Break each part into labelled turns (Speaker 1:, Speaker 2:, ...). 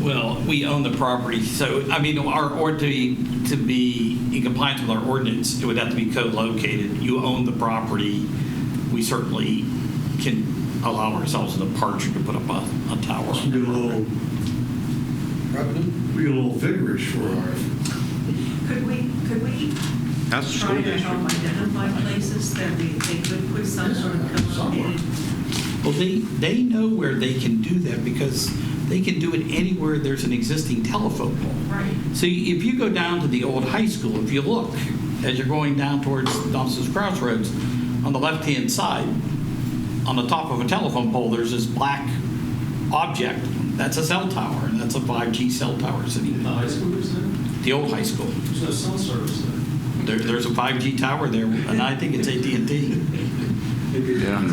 Speaker 1: Well, we own the property, so, I mean, our, or to be, to be in compliance with our ordinance, it would have to be co-located. You own the property, we certainly can allow ourselves an departure to put up a, a tower.
Speaker 2: It's gonna be a little, be a little vigorous for our,
Speaker 3: Could we, could we
Speaker 4: That's the
Speaker 3: try
Speaker 4: school
Speaker 3: to help
Speaker 4: district.
Speaker 3: identify places that they, they could put some sort of
Speaker 2: Somewhere.
Speaker 3: co-located?
Speaker 1: Well, they, they know where they can do that because they can do it anywhere there's an existing telephone pole.
Speaker 3: Right.
Speaker 1: So if you go down to the old high school, if you look, as you're going down towards Thompson's Crossroads, on the left-hand side, on the top of a telephone pole, there's this black object. That's a cell tower, and that's a 5G cell tower sitting
Speaker 5: The
Speaker 1: there.
Speaker 5: high school is there?
Speaker 1: The old high school.
Speaker 5: There's no cell service there.
Speaker 1: There, there's a 5G tower there, and I think it's AT&T.
Speaker 4: Yeah.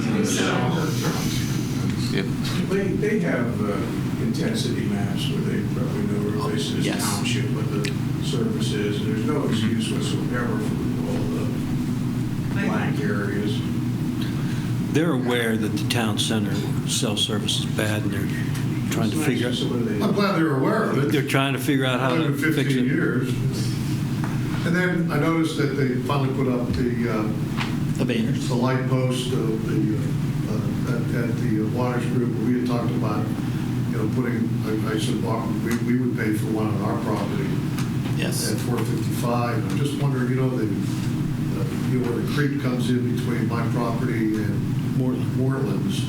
Speaker 4: Yep.
Speaker 6: They, they have uh, intensity maps where they probably know where this is
Speaker 1: Yes.
Speaker 6: township, what the service is. There's no excuse whatsoever for all the blank areas.
Speaker 7: They're aware that the town center cell service is bad, and they're trying
Speaker 6: It's
Speaker 7: to
Speaker 6: nice
Speaker 7: figure,
Speaker 6: just the way they-
Speaker 2: I'm glad they're aware of
Speaker 7: they're
Speaker 2: it.
Speaker 7: trying to figure out how to fix
Speaker 2: 115
Speaker 7: it.
Speaker 2: years. And then I noticed that they finally put up the, uh,
Speaker 1: The banners.
Speaker 2: the light post of the, uh, at at the Waters Group. We had talked about, you know, putting, I I said, "Well, we, we would pay for one on our property.
Speaker 1: Yes.
Speaker 2: at 455. I'm just wondering, you know, the, uh, you know, where the creek comes in between my property and Moreland's.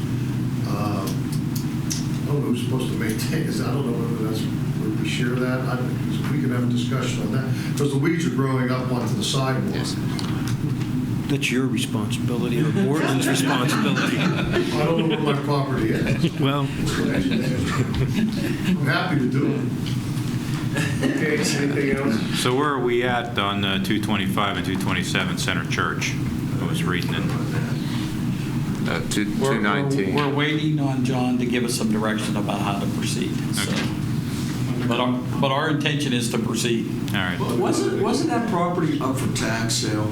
Speaker 2: uh, I don't know who's supposed to maintain this. I don't know whether that's, whether we share that. I don't, we can have a discussion on that. Because the weeds are growing up onto the sidewalk.
Speaker 4: Yes.
Speaker 7: That's your responsibility, or Borden's responsibility.
Speaker 2: I don't know where my property is.
Speaker 7: Well,
Speaker 2: I'm happy to do it.
Speaker 6: Okay, anything else?
Speaker 8: So where are we at on uh, 225 and 227 Center Church? I was reading it.
Speaker 4: Uh, two-
Speaker 1: We're- we're-
Speaker 4: 219.
Speaker 1: We're waiting on John to give us some direction about how to proceed, so.
Speaker 8: Okay.
Speaker 1: But our, but our intention is to proceed.
Speaker 8: All right.
Speaker 5: Wasn't, wasn't that property up for tax sale?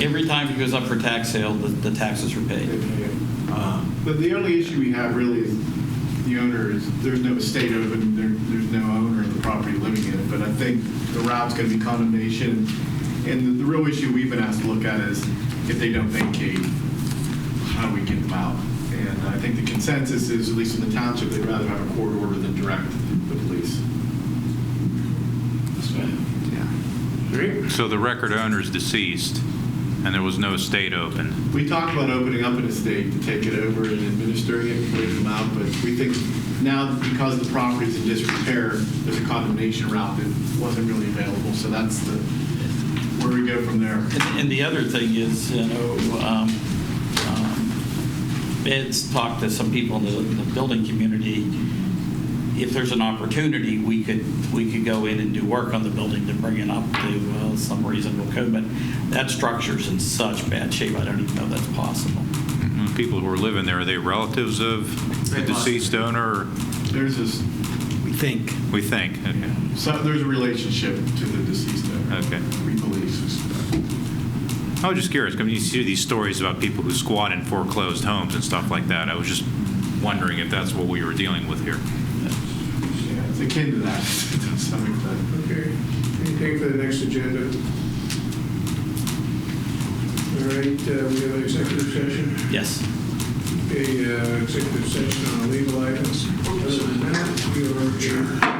Speaker 1: Every time it goes up for tax sale, the, the taxes are paid.
Speaker 9: But the only issue we have really is the owner is, there's no estate open, there, there's no owner of the property living in it. But I think the route's going to be condemnation. And the, the real issue we've been asked to look at is if they don't vacate, how do we get them out? And I think the consensus is, at least in the township, they'd rather have a court order than direct the police.
Speaker 8: So the record owner is deceased, and there was no estate open.
Speaker 9: We talked about opening up an estate to take it over and administering it, putting them out, but we think now because the property's in disrepair, there's a condemnation route that wasn't really available, so that's the, where we go from there.
Speaker 1: And, and the other thing is, you know, um, um, Ed's talked to some people in the, the building community. If there's an opportunity, we could, we could go in and do work on the building to bring it up to uh, some reasonable code, but that structure's in such bad shape, I don't even know that's possible.
Speaker 8: And the People who were living there, are they relatives of the
Speaker 9: They must.
Speaker 8: deceased owner,
Speaker 9: There's this,
Speaker 7: we think.
Speaker 8: we think? Okay.
Speaker 9: so there's a relationship to the deceased owner.
Speaker 8: Okay.
Speaker 9: We believe.
Speaker 8: I was just curious, because you see these stories about people who squat in foreclosed homes and stuff like that. I was just wondering if that's what we were dealing with here.
Speaker 9: Yeah, It's akin to that to some extent.
Speaker 6: Okay, anything for the next agenda? All right, uh, we have an executive session,
Speaker 1: Yes.
Speaker 6: a uh, executive session on legal items. Other than that, we are adjourned.